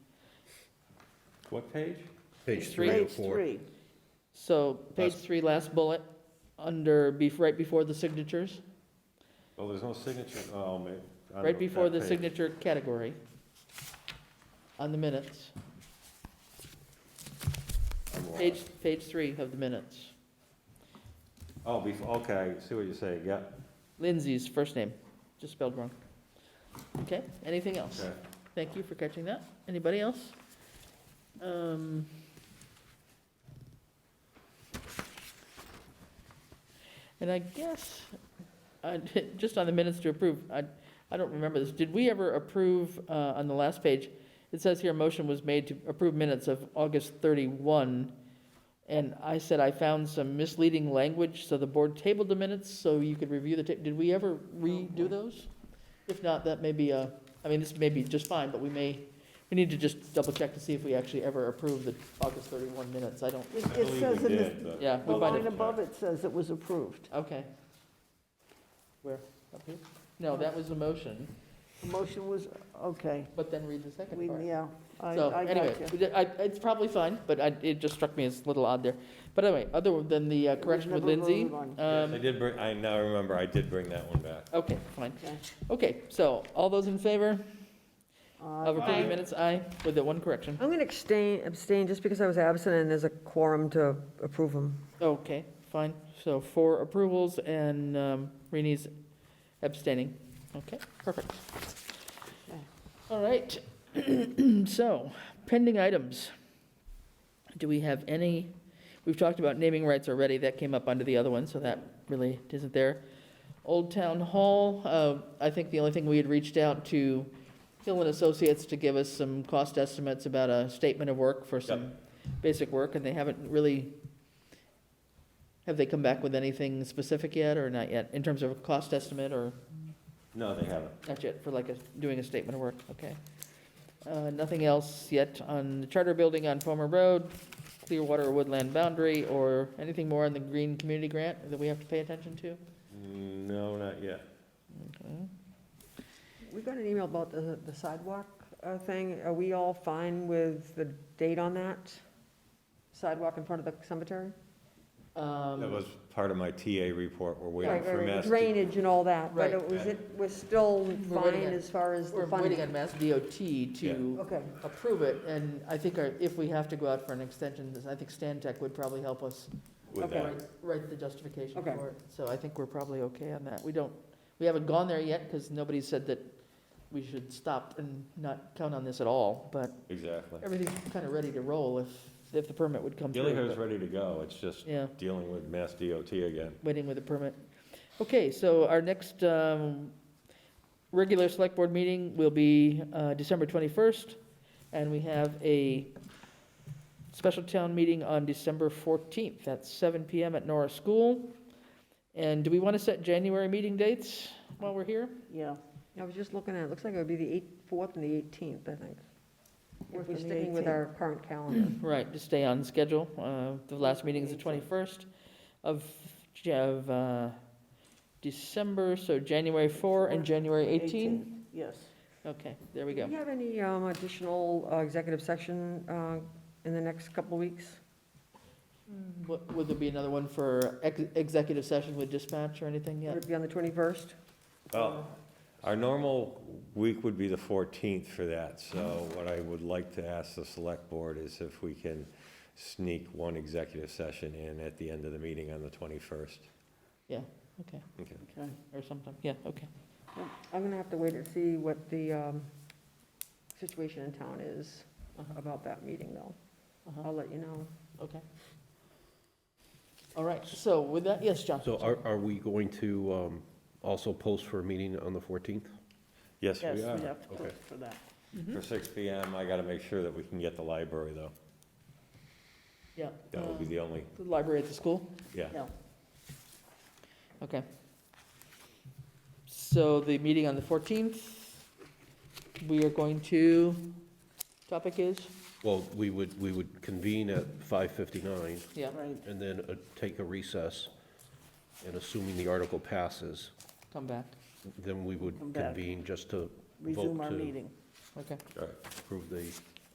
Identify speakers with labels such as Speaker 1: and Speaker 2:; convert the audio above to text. Speaker 1: What page?
Speaker 2: Page
Speaker 3: three.
Speaker 2: three oh
Speaker 3: Page
Speaker 2: four.
Speaker 3: three.
Speaker 4: So page
Speaker 2: Last-
Speaker 4: three, last bullet, under, bef- right before the signatures,
Speaker 1: Oh, there's no signature, oh, ma- I don't
Speaker 4: right
Speaker 1: know,
Speaker 4: before
Speaker 1: that
Speaker 4: the
Speaker 1: page.
Speaker 4: signature category on the minutes,
Speaker 1: I'm lost.
Speaker 4: page, page three of the minutes.
Speaker 1: Oh, before, okay, I see what you're saying, yeah,
Speaker 4: Lindsay's first name, just spelled wrong. Okay, anything else?
Speaker 1: okay.
Speaker 4: Thank you for catching that. Anybody else? Um, And I guess, I- just on the minutes to approve, I, I don't remember this. Did we ever approve, uh, on the last page, it says here, a motion was made to approve minutes of August 31, and I said I found some misleading language, so the board tabled the minutes so you could review the, ta- did we ever redo those? If not, that may be a. I mean, this may be just fine, but we may, we need to just double check to see if we actually ever approve the August 31 minutes. I don't,
Speaker 3: It
Speaker 1: I
Speaker 3: it
Speaker 1: believe
Speaker 3: says
Speaker 1: we
Speaker 3: in
Speaker 1: did,
Speaker 3: the,
Speaker 1: but-
Speaker 4: Yeah,
Speaker 3: the
Speaker 4: we
Speaker 1: I'll
Speaker 4: might
Speaker 3: line
Speaker 1: double
Speaker 3: above
Speaker 1: check.
Speaker 3: it says it was approved.
Speaker 4: okay. Where, up here? No, that was a motion,
Speaker 3: The motion was, okay,
Speaker 4: but then read the
Speaker 3: we,
Speaker 4: second part.
Speaker 3: yeah, I,
Speaker 4: So
Speaker 3: I
Speaker 4: anyway,
Speaker 3: got you.
Speaker 4: we did- I- it's probably fine, but I- it just struck me as a little odd there. But anyway, other than the uh,
Speaker 3: was
Speaker 4: correction with
Speaker 3: never
Speaker 4: Lindsay.
Speaker 3: voted
Speaker 1: Yes, I
Speaker 4: um,
Speaker 1: did bring, I now remember, I did bring that one back.
Speaker 4: Okay, fine.
Speaker 3: Okay.
Speaker 4: Okay, so all those in favor of
Speaker 3: Uh,
Speaker 4: approving minutes, aye, with that one correction.
Speaker 5: I'm going to abstain, abstain just because I was absent and there's a quorum to approve them.
Speaker 4: Okay, fine. So four approvals and um, Reni's abstaining. Okay, perfect.
Speaker 3: Okay.
Speaker 4: All right. So pending items. Do we have any, we've talked about naming rights already. That came up under the other one, so that really isn't there. Old Town Hall, uh, I think the only thing we had reached out to Hill and Associates to give us some cost estimates about a statement of work for some basic work, and they haven't really have they come back with anything specific yet, or not yet, in terms of a cost estimate, or
Speaker 1: No, they haven't.
Speaker 4: not yet, for like a, doing a statement of work, okay? Uh, nothing else yet on the charter building on Palmer Road, Clearwater Woodland Boundary, or anything more on the Green Community Grant that we have to pay attention to?
Speaker 1: Mm, No, not yet.
Speaker 4: Okay.
Speaker 5: Hmm? We got an email about the the sidewalk uh, thing. Are we all fine with the date on that? Sidewalk in front of the cemetery?
Speaker 1: That
Speaker 4: Um,
Speaker 1: was part of my TA report, we're
Speaker 5: Right,
Speaker 1: waiting for
Speaker 5: right, right.
Speaker 1: Mass. to-
Speaker 5: uh, Drainage and all that, but
Speaker 4: Right.
Speaker 5: it was, it was still
Speaker 4: We're waiting
Speaker 5: fine
Speaker 4: on-
Speaker 5: as far as
Speaker 4: We're
Speaker 5: the
Speaker 4: waiting on
Speaker 5: funding.
Speaker 4: Mass DOT to
Speaker 5: Okay,
Speaker 4: approve it, and I think our- if we have to go out for an extension, I think Stan Tech would probably help us
Speaker 1: With
Speaker 5: Okay.
Speaker 1: that,
Speaker 4: Write- Write the justification
Speaker 5: Okay.
Speaker 4: for it. So I think we're probably okay on that. We don't, we haven't gone there yet because nobody said that we should stop and not count on this at all. But
Speaker 1: exactly.
Speaker 4: everything's kind of ready to roll if, if the permit would come through.
Speaker 1: Gilliher's
Speaker 4: but-
Speaker 1: ready to go, it's just
Speaker 4: Yeah,
Speaker 1: dealing with Mass DOT again.
Speaker 4: waiting with the permit. Okay, so our next um, regular select board meeting will be uh, December 21st. And we have a special town meeting on December 14th at 7 PM at Norris School. And do we want to set January meeting dates while we're here?
Speaker 3: Yeah,
Speaker 5: I was just looking at, it looks like it would be the 8th, 4th and the 18th, I think.
Speaker 3: Fourth
Speaker 5: If
Speaker 3: and
Speaker 5: we're
Speaker 3: the
Speaker 5: sticking with
Speaker 3: 18th.
Speaker 5: our current calendar.
Speaker 4: Right, to stay on schedule. Uh, The last meeting is the 21st of, of uh, December, so January 4 and January 18.
Speaker 3: yes.
Speaker 4: Okay, there we
Speaker 5: Do
Speaker 4: go.
Speaker 5: you have any um, additional uh, executive section uh, in the next couple of weeks?
Speaker 4: Mm. Would would there be another one for ex- executive session with dispatch or anything
Speaker 5: Would
Speaker 4: yet?
Speaker 5: it be on the 21st?
Speaker 1: Well, our normal week would be the 14th for that, so what I would like to ask the select board is if we can sneak one executive session in at the end of the meeting on the 21st.
Speaker 4: Yeah, okay.
Speaker 1: Okay.
Speaker 3: Okay.
Speaker 4: Or sometime, yeah, okay.
Speaker 5: I'm going to have to wait and see what the um, situation in town is
Speaker 4: Uh-huh.
Speaker 5: about that meeting, though.
Speaker 4: Uh-huh.
Speaker 5: I'll let you know.
Speaker 4: Okay. All right, so with that, yes, John?
Speaker 2: So are, are we going to um, also post for a meeting on the 14th?
Speaker 1: Yes,
Speaker 3: Yes,
Speaker 1: we
Speaker 3: we
Speaker 1: are.
Speaker 3: have to
Speaker 2: Okay.
Speaker 3: look for that.
Speaker 4: Mm-hmm.
Speaker 1: For 6 PM, I gotta make sure that we can get the library, though.
Speaker 4: Yeah.
Speaker 1: That would be the only,
Speaker 4: The library at the school?
Speaker 1: yeah.
Speaker 3: Yeah,
Speaker 4: Okay. So the meeting on the 14th, we are going to, topic is,
Speaker 2: Well, we would, we would convene at 5:59
Speaker 4: yeah,
Speaker 3: right,
Speaker 2: and then uh, take a recess, and assuming the article passes,
Speaker 4: come back,
Speaker 2: then we would
Speaker 3: Come back.
Speaker 2: convene just to
Speaker 3: resume
Speaker 2: Vote
Speaker 3: our
Speaker 2: to-
Speaker 3: meeting.
Speaker 4: okay.
Speaker 1: All right.
Speaker 2: approve the